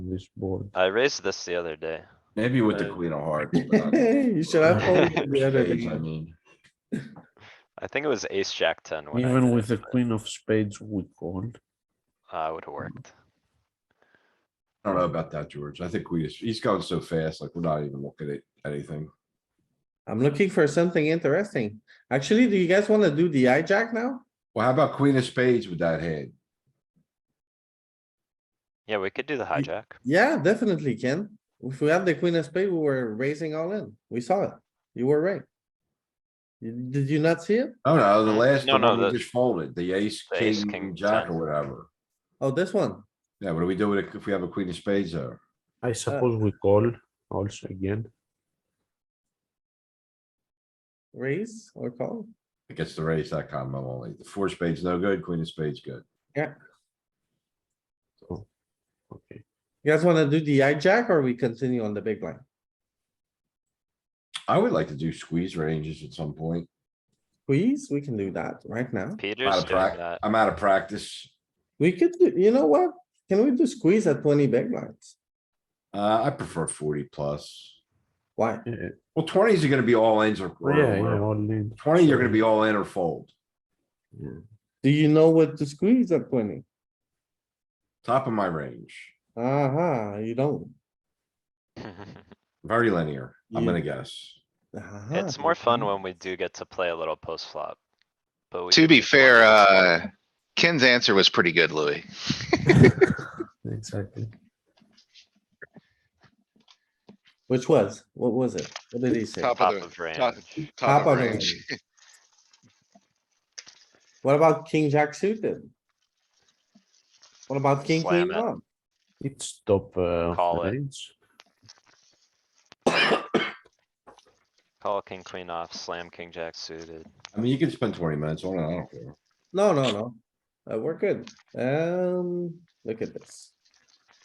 this board. I raised this the other day. Maybe with the Uh, queen of hearts. but not- You should have folded the other Spades, I time. mean. I think it was ace jack ten. when I Even did with it, the queen of spades, we called. but, Uh, would have worked. I don't know about that, George. I think we, just he's going so fast, like we're not even looking at anything. I'm looking for something interesting. Actually, do you guys wanna do the hijack now? Well, how about queen of spades with that hand? Yeah, we could do the hijack. Yeah, definitely, Ken. If we had the queen of spade, we were raising all in. We saw it. You were right. You- Did you not see it? Oh, no, the last, No, the no, one we the- just folded, the ace, the ace, king, king, jack jack. or whatever. Oh, this one. Yeah, what do we do with it if we have a queen of spades there? I suppose we call also again. Raise or call? It gets the raise that combo only. The four spades, no good, queen of spades, good. So, okay. You guys wanna do the hijack or we continue on the big line? I would like to do squeeze ranges at some point. Please, we can do that right now. Out Peter's of doing prac- that. I'm out of practice. We could, do- you know what? Can we do squeeze at twenty big lines? Uh, I prefer forty plus. Why? Yeah, Well, twenties are gonna be all ins or, or- yeah, or- yeah, all in. twenty, you're gonna be all in or fold. Do you know what to squeeze at twenty? Top of my range, Uh-huh, you don't. Ah, very linear, I'm You- gonna guess. Uh-huh, It's more you fun don't. when we do get to play a little post flop. But we To could be do fair, 20 post flop. uh, Ken's answer was pretty good, Louis. Exactly. Which was, what was it? What did he say? uh, Top Top of of the, range. top, Top top of the range. range. What about king jack suited? What about king Slam queen it. off? It's top, uh. Call it. range. Call king queen off, slam king jack suited. I mean, you can spend twenty minutes on it, I don't care. No, no, no. Uh, we're good. Um, look at this.